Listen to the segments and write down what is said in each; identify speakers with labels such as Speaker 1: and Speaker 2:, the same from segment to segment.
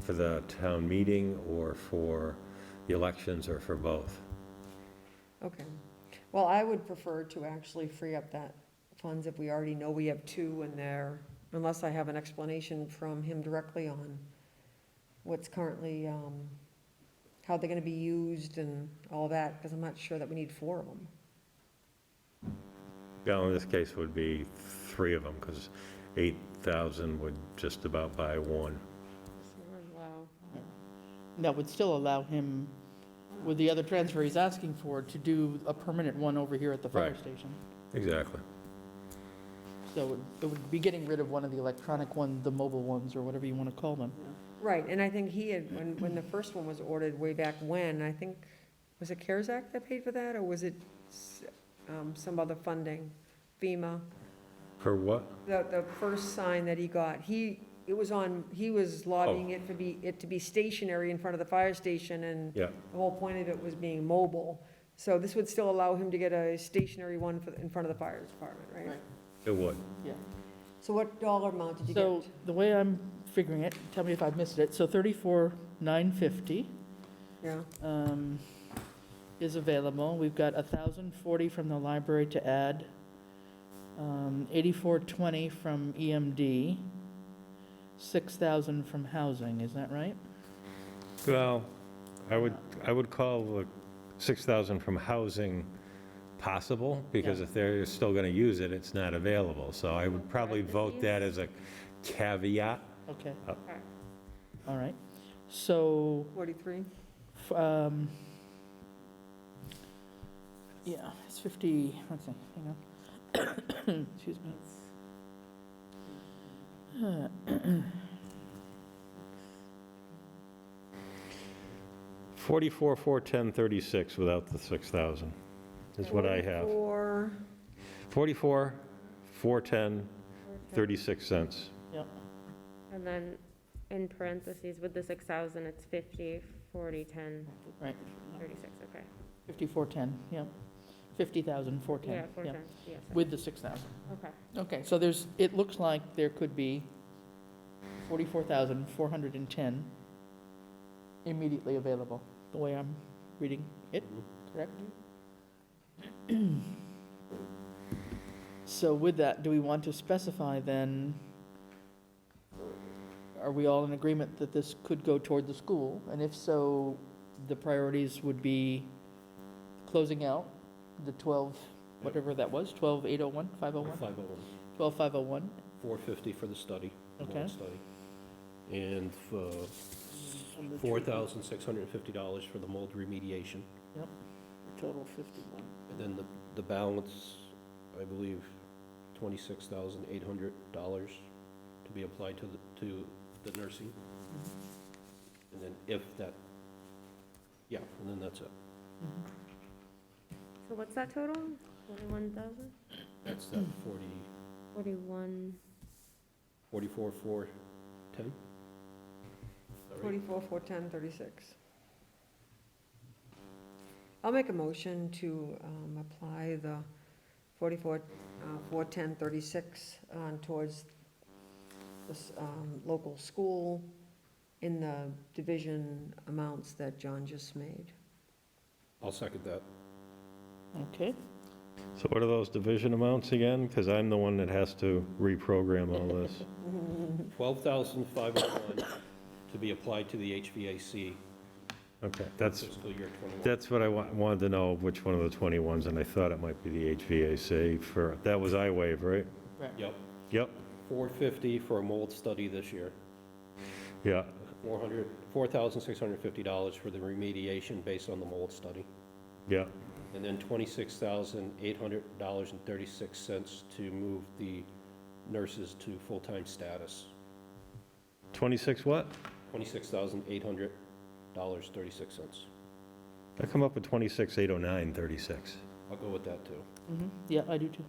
Speaker 1: for the town meeting or for the elections or for both.
Speaker 2: Okay. Well, I would prefer to actually free up that funds if we already know we have two in there, unless I have an explanation from him directly on what's currently, um, how they're gonna be used and all that, because I'm not sure that we need four of them.
Speaker 1: Well, in this case, would be three of them, because 8,000 would just about buy one.
Speaker 3: That would still allow him, with the other transfer he's asking for, to do a permanent one over here at the fire
Speaker 1: Right.
Speaker 3: station.
Speaker 1: Exactly.
Speaker 3: So it would- it would be getting rid of one of the electronic ones, the mobile ones, or whatever you want to call them.
Speaker 2: Right, and I think he had, when, when the first one was ordered way back when, I think, was it CARES Act that paid for that, or was it s- um, some other funding, FEMA?
Speaker 1: For what?
Speaker 2: The, the first sign that he got, he, it was on, he was
Speaker 1: Oh.
Speaker 2: lobbying it to be, it to be stationary in front of the fire station, and
Speaker 1: Yeah.
Speaker 2: the whole point of it was being mobile. So this would still allow him to get a stationary one for, in front of the fire department, right?
Speaker 3: Right.
Speaker 1: It would.
Speaker 3: Yeah.
Speaker 2: So what dollar amount did you
Speaker 3: So
Speaker 2: get?
Speaker 3: the way I'm figuring it, tell me if I've missed it, so 34,950
Speaker 2: Yeah,
Speaker 3: um, is available. We've got 1,040 from the library to add, um, 8420 from E EMD, 6,000 from housing, is that right?
Speaker 1: Well, I would, I would call the 6,000 from housing possible, because
Speaker 3: Yeah.
Speaker 1: if they're still going to use it, it's not available. So I would probably vote that as a caveat.
Speaker 3: Okay.
Speaker 1: Uh,
Speaker 3: All right. So,
Speaker 2: forty-three?
Speaker 3: f- um, yeah, it's 50, let's see, hang on. Excuse me.
Speaker 1: Forty-four, four, ten, thirty-six without the 6,000 is what I have.
Speaker 2: Or,
Speaker 1: 44, 410, 36 cents.
Speaker 4: And then in parentheses, with the six thousand, it's fifty, forty, ten,
Speaker 3: Right,
Speaker 4: thirty-six, okay.
Speaker 3: 5410, yeah. 50,000,
Speaker 4: Yeah,
Speaker 3: 410,
Speaker 4: four,
Speaker 3: yeah,
Speaker 4: ten, yes,
Speaker 3: with the 6,000.
Speaker 4: okay.
Speaker 3: Okay, so there's, it looks like there could be 44,410 immediately available, the way I'm reading it, correct? So with that, do we want to specify then, are we all in agreement that this could go toward the school? And if so, the priorities would be closing out the 12, whatever that was, oh 12, 801, 501? 12501,
Speaker 5: 450 for the study,
Speaker 3: Okay.
Speaker 5: one study. And uh, $4,650 for the mold remediation.
Speaker 3: total 51.
Speaker 5: And then the, the balance, I believe, $26,800 to be applied to the, to the nursing. And then if that, yeah, and then that's it.
Speaker 3: Mm-hmm.
Speaker 4: So what's that total? Forty-one thousand?
Speaker 5: That's that 40,
Speaker 4: Forty-one,
Speaker 5: 44, 410?
Speaker 2: forty-four, four, ten, thirty-six. I'll make a motion to, um, apply the forty-four, uh, four, ten, thirty-six, uh, towards this, um, local school in the division amounts that John just made.
Speaker 5: I'll second that.
Speaker 3: Okay,
Speaker 1: So what are those division amounts again? Because I'm the one that has to reprogram all this.
Speaker 5: 12,501 to be applied to the HVAC
Speaker 1: Okay, that's,
Speaker 5: fiscal year 21.
Speaker 1: that's what I wa- wanted to know, which one of the 21s, and I thought it might be the HVAC for, that was I-Wave, right?
Speaker 5: Yep,
Speaker 1: Yep,
Speaker 5: 450 for a mold study this year,
Speaker 1: yeah,
Speaker 5: 400, $4,650 for the remediation based on the mold study,
Speaker 1: yeah.
Speaker 5: and then $26,800.36 to move the nurses to full-time status.
Speaker 1: 26 what?
Speaker 5: $26,800.36.
Speaker 1: I come up with oh 26, 809, 36.
Speaker 5: I'll go with that, too.
Speaker 3: mhm, yeah, I do too,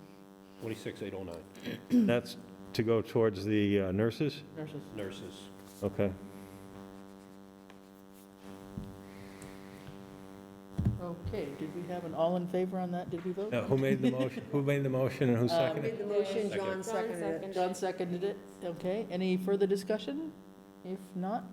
Speaker 5: 26,809,
Speaker 1: That's to go towards the uh, nurses?
Speaker 3: nurses.
Speaker 5: nurses.
Speaker 1: Okay.
Speaker 3: Okay, did we have an all in favor on that, did we vote?
Speaker 1: Now, who made the motion, who made the motion and who seconded?
Speaker 2: Made the motion, John
Speaker 4: Second. John
Speaker 2: seconded it.
Speaker 4: seconded.
Speaker 3: John seconded it, okay, any further discussion? If not,